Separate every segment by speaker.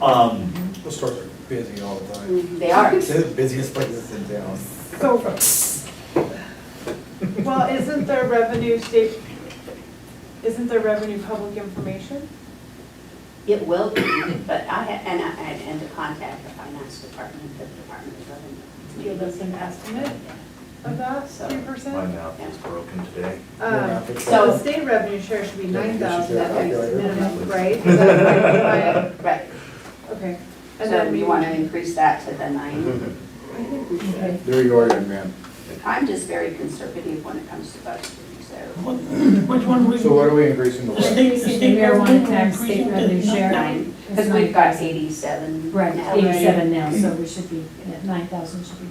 Speaker 1: Um,
Speaker 2: The stores are busy all the time.
Speaker 3: They are.
Speaker 2: They're the busiest places in town.
Speaker 4: So, well, isn't their revenue state, isn't their revenue public information?
Speaker 3: It will be, but I, ha- and I, and- and to contact the finance department, the Department of
Speaker 4: To
Speaker 3: Revenue.
Speaker 4: Give us an estimate of that,
Speaker 3: So-
Speaker 4: three percent?
Speaker 5: My mouth is broken today.
Speaker 4: Um,
Speaker 2: Yeah.
Speaker 4: So the state revenue share should be
Speaker 2: Yeah, you
Speaker 4: nine
Speaker 2: should
Speaker 4: thousand,
Speaker 2: do
Speaker 4: at
Speaker 2: that.
Speaker 4: least minimum, right? Is
Speaker 2: Yeah.
Speaker 4: that right?
Speaker 3: Right,
Speaker 4: Okay,
Speaker 3: so
Speaker 4: and then we
Speaker 3: you
Speaker 4: want
Speaker 3: want
Speaker 4: to.
Speaker 3: to increase that to the nine.
Speaker 6: They're your man.
Speaker 3: I'm just very conservative when it comes to budgeting, so
Speaker 7: Which one we?
Speaker 6: So uh, what are we increasing the
Speaker 7: The
Speaker 6: what?
Speaker 7: state, the
Speaker 8: It's the
Speaker 7: state
Speaker 8: marijuana
Speaker 7: government
Speaker 8: tax,
Speaker 7: increased
Speaker 8: state
Speaker 7: it to
Speaker 8: revenue share.
Speaker 3: nine, because
Speaker 8: It's
Speaker 3: we've
Speaker 8: nine
Speaker 3: got
Speaker 8: thousand.
Speaker 3: eighty-seven.
Speaker 8: Right,
Speaker 3: now.
Speaker 8: eighty-seven now, so we should be, nine thousand should be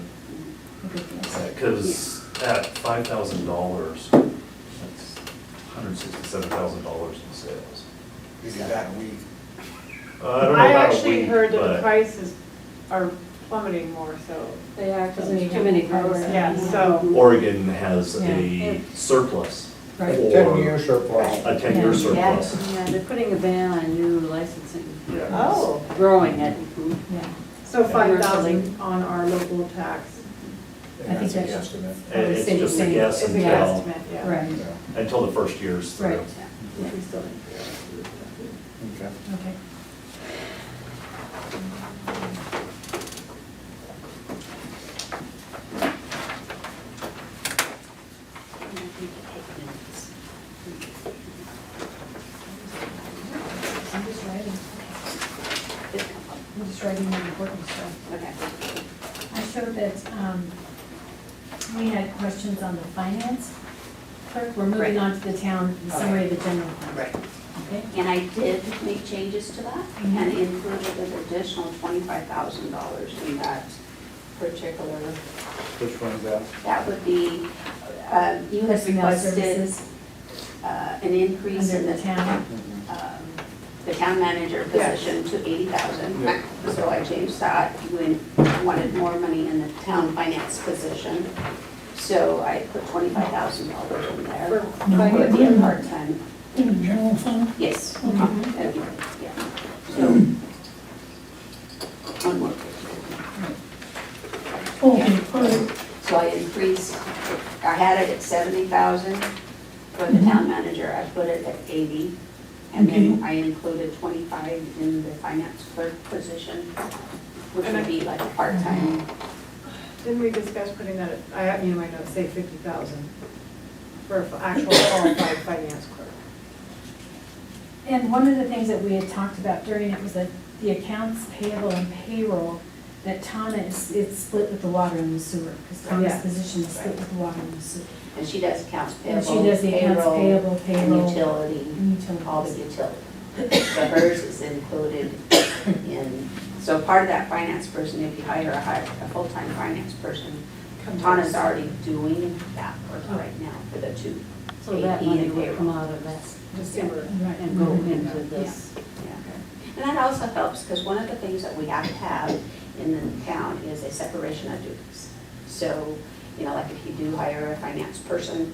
Speaker 8: a good guess.
Speaker 5: Because at five thousand dollars, that's hundred sixty-seven thousand dollars in sales.
Speaker 2: You do that a week.
Speaker 5: Uh, I don't know
Speaker 4: I
Speaker 5: about a
Speaker 4: actually
Speaker 5: week,
Speaker 4: heard that
Speaker 5: but-
Speaker 4: the prices are plummeting more, so.
Speaker 8: They are, because
Speaker 3: There's too many growers.
Speaker 4: Yeah, so,
Speaker 5: Oregon has a
Speaker 8: Yeah.
Speaker 5: surplus
Speaker 8: Right.
Speaker 6: Ten
Speaker 5: or
Speaker 6: years surplus.
Speaker 5: a ten-year
Speaker 8: Yeah.
Speaker 5: surplus.
Speaker 9: Yeah, they're putting a ban on new licensing,
Speaker 5: Yeah.
Speaker 4: oh,
Speaker 9: growing it.
Speaker 8: Yeah,
Speaker 4: so five thousand on our local tax
Speaker 8: I think
Speaker 6: And that's an
Speaker 8: that's-
Speaker 6: estimate.
Speaker 5: And it's just a guess
Speaker 4: is a
Speaker 8: Yeah.
Speaker 5: until,
Speaker 4: guesstimate, yeah.
Speaker 8: right,
Speaker 6: Yeah,
Speaker 5: until the first year's through.
Speaker 8: Right.
Speaker 4: Which we still didn't figure
Speaker 6: okay.
Speaker 8: okay. I'm just writing, I'm just writing the important stuff.
Speaker 3: Okay.
Speaker 8: I showed that um, we had questions on the finance clerk. We're
Speaker 3: Right.
Speaker 8: moving on to the town, the summary of the general fund.
Speaker 3: Right.
Speaker 8: Okay?
Speaker 3: And I did make changes to that and included an additional twenty-five thousand dollars in that particular.
Speaker 6: Which one's that?
Speaker 3: That would be, uh, you had
Speaker 8: Personnel
Speaker 3: requested
Speaker 8: services
Speaker 3: uh, an increase
Speaker 8: Under
Speaker 3: in
Speaker 8: the
Speaker 3: the,
Speaker 8: town.
Speaker 6: Mm-hmm.
Speaker 3: um, the town manager
Speaker 4: Yes.
Speaker 3: position to eighty thousand.
Speaker 6: Yeah.
Speaker 3: So I changed that. You in- wanted more money in the town finance position. So I put twenty-five thousand dollars in
Speaker 4: For
Speaker 3: there. It would
Speaker 4: finance,
Speaker 3: be a part-time,
Speaker 7: In the general fund,
Speaker 3: yes.
Speaker 7: okay.
Speaker 3: Yeah, so. One more picture.
Speaker 7: Okay, perfect.
Speaker 3: So I increased, I had it at seventy thousand for the
Speaker 8: Mm-hmm.
Speaker 3: town manager, I put it at eighty. And then I included twenty-five in the finance clerk position, which would be like a part-time.
Speaker 4: Didn't we discuss putting that, at- I have, you know, my notes say fifty thousand for an actual qualified finance clerk.
Speaker 8: And one of the things that we had talked about during it was that the accounts payable and payroll, that Tana is, it's split with the water and the sewer. Because
Speaker 3: Oh,
Speaker 4: Yeah.
Speaker 8: Tana's position is split with the water and the sewer.
Speaker 3: And she does accounts
Speaker 8: And she
Speaker 3: payable,
Speaker 8: does the accounts
Speaker 3: payroll,
Speaker 8: payable,
Speaker 3: and
Speaker 8: payroll.
Speaker 3: utility,
Speaker 8: and utilities.
Speaker 3: all the utilities. But hers is included in, so part of that finance person, if you hire a hire, a full-time finance person, Tana's already doing that work right now for the two.
Speaker 9: So that
Speaker 3: AP
Speaker 9: money
Speaker 3: and
Speaker 9: will come
Speaker 3: payroll.
Speaker 9: out of that
Speaker 4: The sewer.
Speaker 8: Right.
Speaker 9: and go into this.
Speaker 3: Yeah. And that also helps, because one of the things that we have to have in the town is a separation of duties. So, you know, like if you do hire a finance person,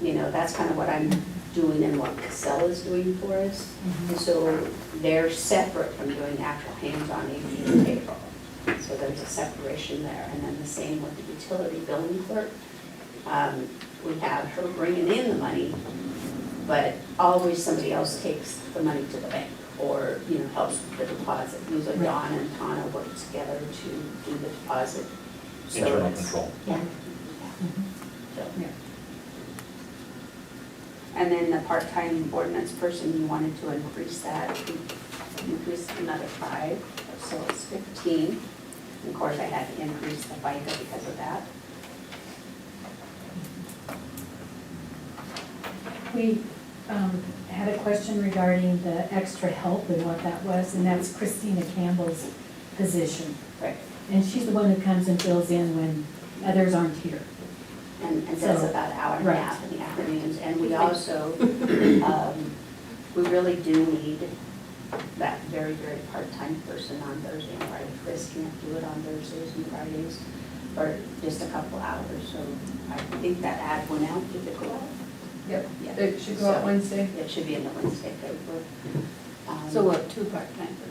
Speaker 3: you know, that's kind of what I'm doing and what Casella is doing for us. And so they're separate from doing actual hands-on AP and payroll. So there's a separation there. And then the same with the utility billing clerk. Um, We have her bringing in the money, but always somebody else takes the money to the bank or, you know, helps with the deposit. Usually
Speaker 8: Right.
Speaker 3: Don and Tana work together to do the deposit. So
Speaker 5: Internal
Speaker 3: it's-
Speaker 5: control.
Speaker 3: Yeah.
Speaker 8: Mhm.
Speaker 3: So-
Speaker 8: Yeah.
Speaker 3: And then the part-time ordinance person, you wanted to increase that, you increased another five, so it's fifteen. Of course, I had to increase the FICA because of that.
Speaker 8: We um, had a question regarding the extra help and what that was, and that's Christina Campbell's position.
Speaker 3: Right.
Speaker 8: And she's the one who comes and fills in when others aren't here.
Speaker 3: and, and that's
Speaker 8: So,
Speaker 3: about an hour and a
Speaker 8: right.
Speaker 3: half in the afternoons. And we also, um, we really do need that very, very part-time person on Thursday and Friday. Chris can't do it on Thursdays and Fridays, or just a couple hours, so I think that ad went out, did it go out?
Speaker 9: Yep,
Speaker 3: Yeah.
Speaker 9: it should go out
Speaker 3: So,
Speaker 9: Wednesday.
Speaker 3: It should be in the Wednesday paper. Um,
Speaker 9: So what, two part-timers?